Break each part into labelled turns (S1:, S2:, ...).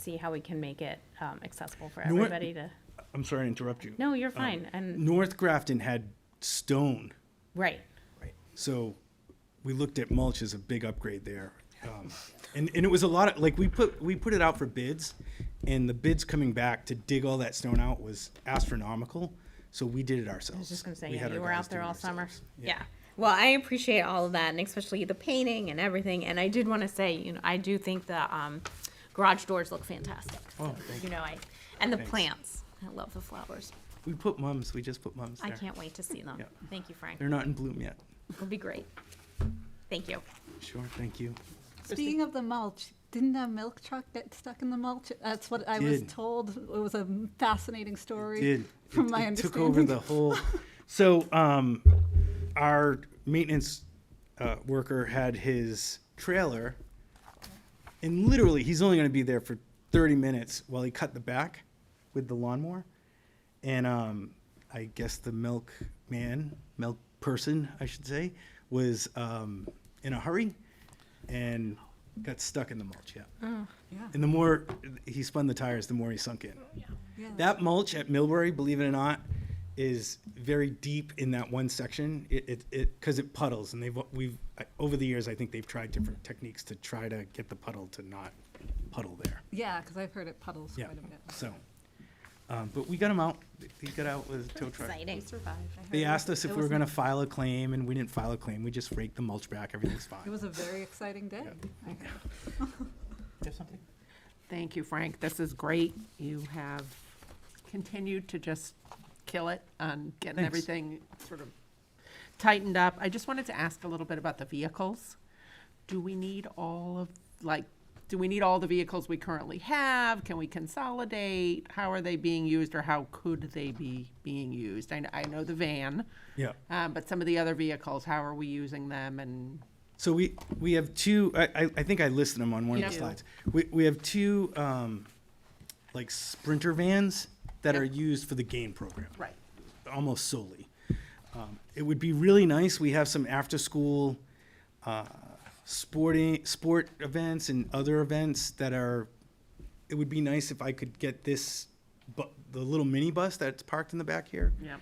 S1: see how we can make it um, accessible for
S2: You know what? Um,
S1: everybody to,
S2: I'm sorry to interrupt you.
S1: no, you're fine, and,
S2: North Grafton had stone,
S1: right.
S2: so we looked at mulch as a big upgrade there. Um, and, and it was a lot of like we put we put it out for bids, and the bids coming back to dig all that stone out was astronomical. So we did it ourselves.
S1: I was just gonna say,
S2: We
S1: yeah,
S2: had
S1: you
S2: our
S1: were
S2: guys
S1: out there
S2: do it
S1: all summer.
S2: ourselves.
S1: Yeah.
S3: Well, I appreciate all of that, and especially the painting and everything. And I did want to say, you know, I do think the um, garage doors look fantastic.
S2: Oh,
S3: So,
S2: thank
S3: you know, I and the
S2: Thanks.
S3: plants. I love the flowers.
S2: We put mums. We just put mums.
S3: I
S2: there.
S3: can't wait to see them.
S2: Yeah.
S3: Thank you, Frank.
S2: They're not in bloom yet.
S3: It'll be great. Thank you.
S2: Sure. Thank you.
S4: Speaking of the mulch, didn't a milk truck get stuck in the mulch? That's what I was
S2: Did.
S4: told. It was a fascinating story.
S2: did.
S4: From
S2: It-
S4: my
S2: it
S4: understanding.
S2: took over the whole. So um, our maintenance uh, worker had his trailer, and literally he's only going to be there for 30 minutes while he cut the back with the lawnmower, and um, I guess the milk man, milk person, I should say, was um, in a hurry, and got stuck in the mulch. Yeah.
S4: Yeah.
S2: And the more he spun the tires, the more he sunk in.
S4: Yeah.
S2: That mulch at Millbury, believe it or not, is very deep in that one section. It, it, it, cause it puddles and they've, we've, I- over the years, I think they've tried different techniques to try to get the puddle to not puddle there.
S4: Yeah, because I've heard it puddles
S2: Yeah,
S4: quite a bit.
S2: so, um, but we got him out. He got out with a tow truck.
S3: Exciting.
S2: They asked us if
S4: It
S2: we were
S4: was-
S2: gonna file a claim and we didn't file a claim. We just raked the mulch back. Everything's fine.
S4: It was a very exciting day. I heard.
S5: Thank you, Frank. This is great. You have continued to just kill it on getting
S2: Thanks.
S5: everything sort of tightened up. I just wanted to ask a little bit about the vehicles. Do we need all of, like, do we need all the vehicles we currently have? Can we consolidate? How are they being used or how could they be being used? I, kn- I know the van.
S2: Yeah.
S5: uh, but some of the other vehicles, how are we using them and
S2: So we, we have two, I, I, I think I listed them on one
S5: You
S2: of the
S5: do.
S2: slides. We, we have two, um, like Sprinter vans that are used for the game program.
S5: Right.
S2: Almost solely. Um, it would be really nice, we have some after-school, uh, sporting, sport events and other events that are, it would be nice if I could get this, bu- the little mini bus that's parked in the back here
S5: Yeah.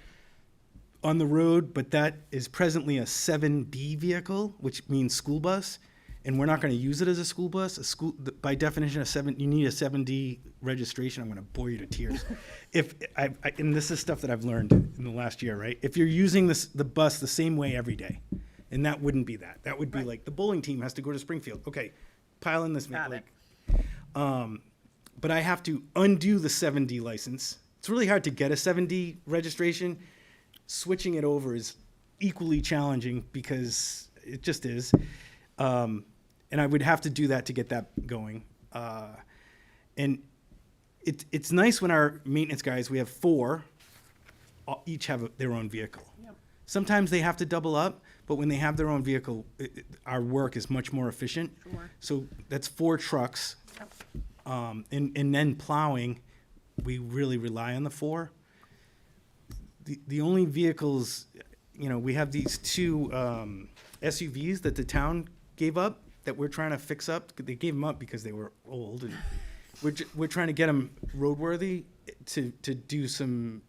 S2: on the road, but that is presently a 7B vehicle, which means school bus, and we're not going to use it as a school bus. A school, th- by definition, a seven, you need a 7D registration. I'm going to bore you to tears. if I, I, and this is stuff that I've learned in the last year, right? If you're using this the bus the same way every day, and that wouldn't be that. That would be like the bowling team has to go to Springfield. Okay, pile in this ma-
S5: Got it.
S2: like but I have to undo the 7D license. It's really hard to get a 7D registration. Switching it over is equally challenging because it just is. Um, and I would have to do that to get that going. Uh, and it, it's nice when our maintenance guys, we have four, all- each have a- their own vehicle. Sometimes they have to double up, but when they have their own vehicle, it, it- our work is much more efficient. So that's four trucks. Um, and, and then plowing, we really rely on the four. The, the only vehicles, you know, we have these two um, SUVs that the town gave up that we're trying to fix up. They gave them up because they were old and we're, ju- we're trying to get them roadworthy to, to do some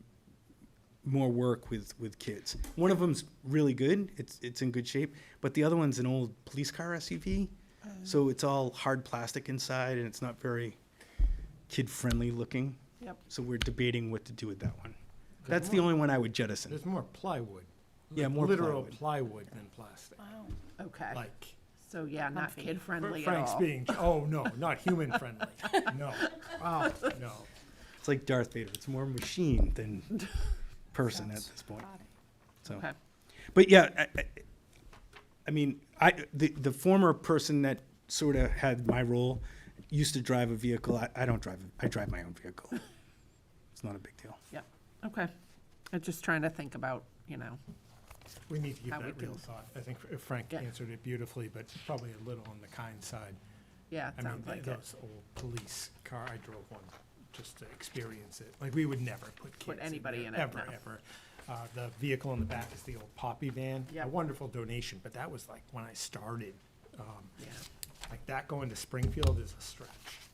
S2: more work with with kids. One of them's really good; it's it's in good shape. But the other one's an old police car SUV,
S5: Uh.
S2: so it's all hard plastic inside, and it's not very kid friendly looking.
S5: Yep.
S2: So we're debating what to do with that one. That's
S6: There's
S2: the
S6: more-
S2: only one I would jettison.
S6: There's more plywood.
S2: Yeah,
S6: like
S2: more
S6: Literal
S2: plywood.
S6: plywood than plastic,
S5: Okay.
S6: like.
S5: So yeah, not kid friendly at all.
S6: Frank's being, oh, no, not human friendly, no. Wow. No.
S2: It's like Darth Vader; it's more machine than person at this point. So.
S5: Okay.
S2: But yeah, I, I, I mean, I the, the former person that sort of had my role used to drive a vehicle. I, I don't drive. I drive my own vehicle. It's not a big deal.
S5: Yep, okay. I'm just trying to think about, you know,
S6: We need to give
S5: How we
S6: that real
S5: do.
S6: thought. I think Fr- Frank
S5: Yeah.
S6: answered it beautifully, but probably a little on the kind side.
S5: yeah,
S6: I
S5: it
S6: mean,
S5: sounds
S6: th-
S5: like it.
S6: those old police car, I drove one just to experience it. Like, we would never put kids in
S5: anybody
S6: there,
S5: in it,
S6: Ever,
S5: no.
S6: ever. Uh, the vehicle in the back is the old Poppy van.
S5: Yep.
S6: A wonderful donation, but that was like when I started. Um,
S5: Yeah.
S6: like that going to Springfield is a stretch.